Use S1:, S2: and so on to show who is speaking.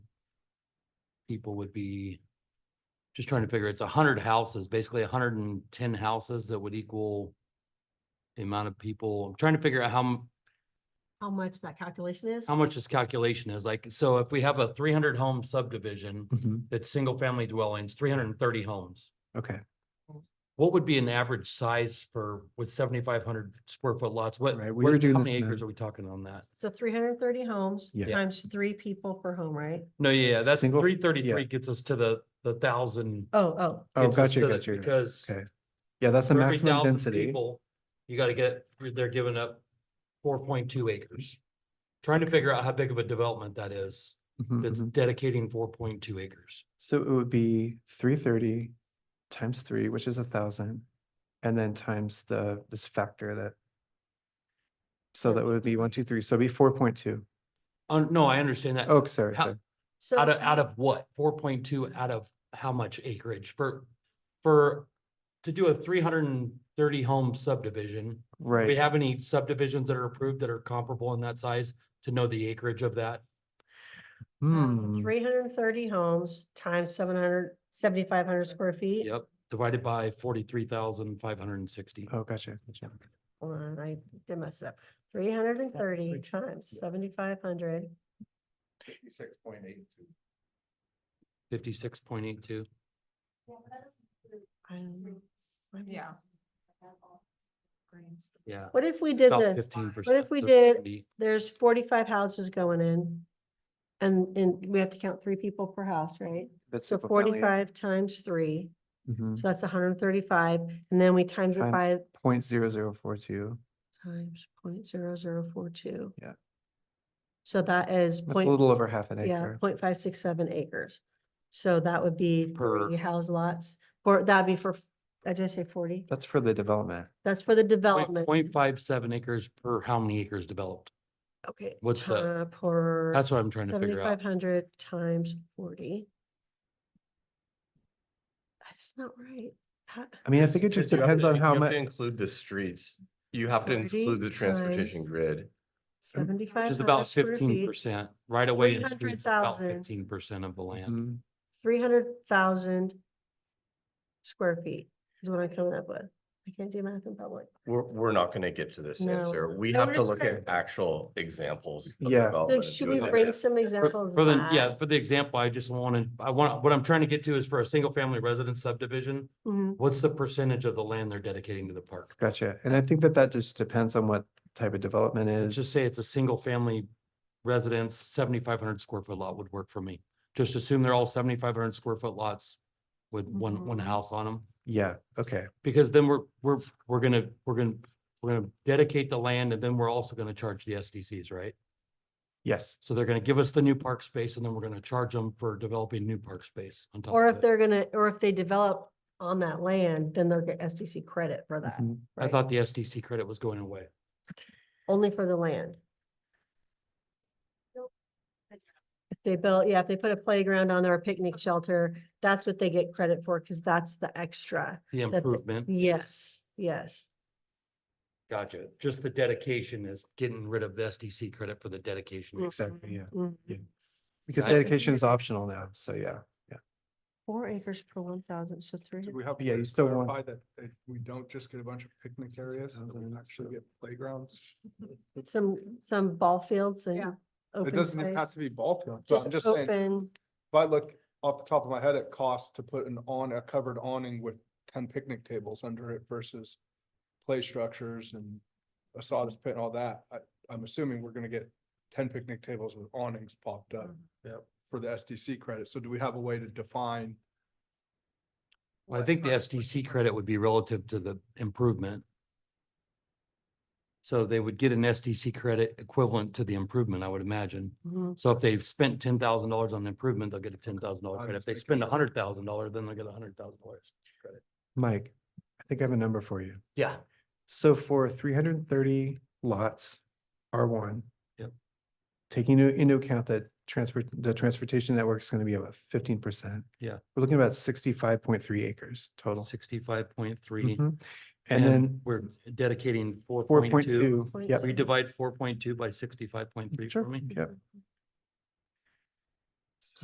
S1: people would be just trying to figure, it's a hundred houses, basically a hundred and ten houses that would equal the amount of people, I'm trying to figure out how, m-
S2: how much that calculation is.
S1: how much this calculation is like. So if we have a three hundred home subdivision
S3: Mhm.
S1: that's single family dwellings, three hundred and thirty homes.
S3: Okay.
S1: What would be an average size for with seventy-five hundred square foot lots? What,
S3: Right, we were
S1: what,
S3: doing
S1: how
S3: this
S1: many
S3: in a-
S1: acres are we talking on that?
S2: So three hundred and thirty homes
S3: Yeah.
S2: times three people per home, right?
S1: No, yeah, that's
S3: Single-
S1: three thirty-three gets us to the, the thousand.
S2: Oh, oh,
S3: Oh,
S1: gets us
S3: gotcha,
S1: to the-
S3: gotcha.
S1: Because
S3: Okay. Yeah, that's the
S1: for every
S3: maximum
S1: 1,000
S3: density.
S1: people, You gotta get, they're giving up four point two acres. Trying to figure out how big of a development that is,
S3: Mhm,
S1: that's
S3: mhm.
S1: dedicating four point two acres.
S3: So it would be three thirty times three, which is a thousand, and then times the, this factor that. So that would be one, two, three, so it'd be four point two.
S1: Oh, no, I understand that.
S3: Oh, sorry,
S1: How-
S3: sorry.
S2: so.
S1: Out of, out of what? Four point two out of how much acreage for, for, to do a three hundred and thirty home subdivision? Do we
S3: right.
S1: have any subdivisions that are approved that are comparable in that size to know the acreage of that?
S3: Hmm,
S2: Three hundred and thirty homes times seven hundred, seventy-five hundred square feet.
S1: Yep, divided by forty-three thousand five hundred and sixty.
S3: oh, gotcha, gotcha.
S2: Hold on, I did mess up. Three hundred and thirty times seventy-five hundred.
S4: Fifty-six point eight two.
S1: Fifty-six point eight two.
S2: Yeah.
S1: Yeah.
S2: What if we did
S1: About
S2: this?
S1: fifteen percent.
S2: What if we did- There's forty-five houses going in. And, and we have to count three people per house, right?
S3: That's
S2: So
S3: single-family.
S2: forty-five times three,
S3: Mhm.
S2: so that's hundred and thirty-five, and then we times it by
S3: Times point zero zero four two.
S2: times point zero zero four two.
S3: Yeah.
S2: So that is
S3: That's a
S2: point,
S3: little over half an
S2: yeah,
S3: acre.
S2: point five six seven acres. So that would be
S1: Per-
S2: three house lots, or that'd be for, I did I say forty,
S3: That's for the development.
S2: that's for the development.
S1: Point five seven acres per how many acres developed?
S2: Okay.
S1: what's the-
S2: time Per.
S1: That's what I'm trying to figure out.
S2: Seventy-five hundred times forty. That's not right. How-
S3: I mean, I think it just
S4: You have
S3: depends
S4: to-
S3: on
S4: you
S3: how
S4: have to
S3: much,
S4: Include the streets. You have to
S2: 40
S4: include the transportation
S2: times
S4: grid.
S2: Seventy-five
S1: Just
S2: hundred
S1: about
S2: square
S1: fifteen
S2: feet,
S1: percent, right away in
S2: 300,000.
S1: streets, about fifteen percent of the land.
S3: Mhm.
S2: three hundred thousand square feet is what I'm coming up with. I can't do math in public.
S4: We're, we're not gonna get to this
S2: No.
S4: answer. We
S2: No,
S4: have
S2: we're
S4: to
S2: just
S4: look
S2: trying-
S4: at actual examples. of
S3: Yeah. So
S2: So
S4: development and
S2: should
S4: do
S2: we
S4: it like
S2: bring
S4: that.
S2: some
S1: For
S2: examples?
S1: for
S2: of
S1: the, yeah,
S2: that?
S1: for the example, I just wanted, I want, what I'm trying to get to is for a single family residence subdivision,
S2: Mhm.
S1: what's the percentage of the land they're dedicating to the park?
S3: Gotcha. And I think that that just depends on what type of development
S1: Let's
S3: is.
S1: Um, just say it's a single family residence, seventy-five hundred square foot lot would work for me. Just assume they're all seventy-five hundred square foot lots with one, one
S2: Mhm.
S1: house on them.
S3: Yeah, okay.
S1: Because then we're, we're, we're gonna, we're gonna, we're gonna dedicate the land and then we're also gonna charge the SDCs, right?
S3: Yes.
S1: So they're gonna give us the new park space and then we're gonna charge them for developing new park space on top
S2: Or if
S1: of it.
S2: they're gonna, or if they develop on that land, then they'll get SDC credit for that,
S3: Mhm.
S1: I
S2: right?
S1: thought the SDC credit was going away.
S2: Only for the land. If they built, yeah, if they put a playground on there, a picnic shelter, that's what they get credit for, because that's the extra.
S1: The
S2: that they-
S1: improvement.
S2: Yes, yes.
S1: Gotcha. Just the dedication is getting rid of the SDC credit for the dedication.
S3: Exactly, yeah.
S2: Mhm.
S3: yeah. Because
S1: I think
S3: dedication is optional now, so yeah.
S2: Four acres per one thousand, so three.
S5: Do we have
S3: Yeah,
S5: to
S3: you still want-
S5: clarify that, that we don't just get a bunch of picnic areas, that we
S3: 6,000,
S5: actually
S3: so-
S5: get playgrounds?
S2: Some, some ball fields
S6: Yeah.
S2: and
S5: It
S2: open
S5: doesn't even have
S2: space.
S5: to be ball fields, but
S2: Just
S5: I'm just saying, if
S2: open,
S5: I look off the top of my head, it costs to put an on, a covered awning with ten picnic tables under it versus play structures and a sawdust pit and all that. I, I'm assuming we're gonna get ten picnic tables with awnings popped up.
S2: Mm-hmm.
S5: Yep. For the SDC credit, so do we have a way to define?
S1: Well, I think the SDC credit would be relative to the improvement. So they would get an SDC credit equivalent to the improvement, I would imagine.
S2: Mhm.
S1: So if they've spent ten thousand dollars on the improvement, they'll get a ten thousand dollar
S5: I'm
S1: credit. If
S5: just
S1: they
S5: making
S1: spend a
S5: sure.
S1: hundred thousand dollars, then they'll get a hundred thousand dollars credit.
S3: Mike, I think I have a number for you.
S1: Yeah,
S3: So for three hundred and thirty lots, R one.
S1: Yep.
S3: Taking into- into account that transport, the transportation network is going to be about fifteen percent.
S1: Yeah.
S3: We're looking at about sixty-five point three acres total.
S1: sixty-five point three.
S3: Mhm. And then
S1: We're dedicating four
S3: four
S1: point
S3: point
S1: two.
S3: two, yep.
S1: We divide four point two by sixty-five point three
S3: Sure,
S1: for me.
S3: Yep.